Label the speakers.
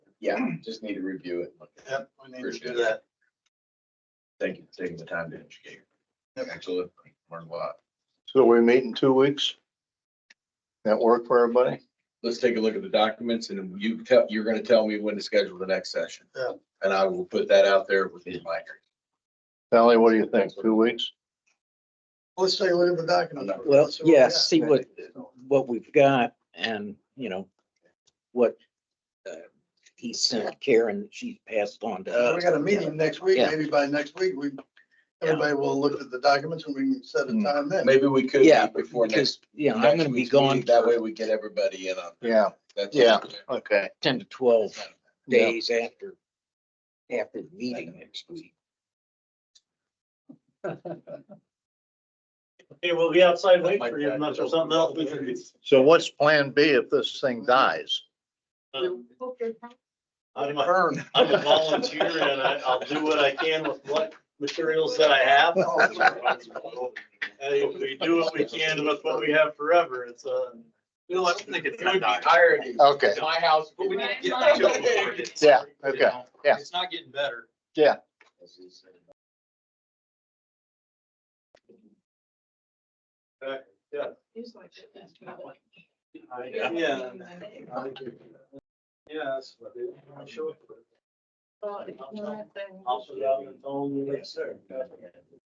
Speaker 1: Yeah, just need to review it.
Speaker 2: Yep, we need to
Speaker 1: Appreciate
Speaker 2: do
Speaker 1: it.
Speaker 2: that.
Speaker 1: Thank you for taking the time to educate. Absolutely. Learn a lot.
Speaker 3: So we meet in two weeks? That work for everybody?
Speaker 1: Let's take a look at the documents and then you tell, you're gonna tell me when to schedule the next session.
Speaker 2: Yeah.
Speaker 1: And I will put that out there with the mic.
Speaker 3: Sally, what do you think? Two weeks?
Speaker 2: Let's take a look at the document.
Speaker 4: Well, yeah, see what, what we've got and, you know, what uh, he sent Karen, she's passed on to
Speaker 2: Uh, We
Speaker 4: us.
Speaker 2: got a meeting next week,
Speaker 4: Yeah.
Speaker 2: maybe by next week, we, everybody will look at the documents and we can set a time then.
Speaker 1: Maybe we could.
Speaker 4: Yeah,
Speaker 1: meet Before
Speaker 4: because,
Speaker 1: next.
Speaker 4: you know, I'm
Speaker 1: next
Speaker 4: gonna be
Speaker 1: week's
Speaker 4: gone
Speaker 1: meeting. That way
Speaker 4: for
Speaker 1: we get everybody in on.
Speaker 3: Yeah,
Speaker 1: that's-
Speaker 3: Yeah. okay.
Speaker 4: ten to twelve
Speaker 3: Yeah.
Speaker 4: days after, after the meeting next week.
Speaker 5: Okay, we'll be outside
Speaker 1: That
Speaker 5: waiting
Speaker 1: might
Speaker 5: for you
Speaker 1: back
Speaker 5: unless
Speaker 1: it up.
Speaker 5: there's something else. we can do.
Speaker 3: So what's plan B if this thing dies?
Speaker 5: Um, I'm a, I'm a volunteer and I, I'll do what I can with what materials that I have.
Speaker 2: Oh,
Speaker 5: And if we do what we can with what we have forever, it's uh
Speaker 6: No, I don't think it's
Speaker 5: It would
Speaker 6: gonna
Speaker 5: be
Speaker 6: die.
Speaker 5: irony.
Speaker 3: Okay,
Speaker 6: It's my house, but we need to get to it before it. gets-
Speaker 3: Yeah, okay,
Speaker 6: you know?
Speaker 3: yeah.
Speaker 6: It's not getting better.
Speaker 5: Yeah. Yeah, that's what it is. I'm sure. I'll put it on the phone, yes, sir.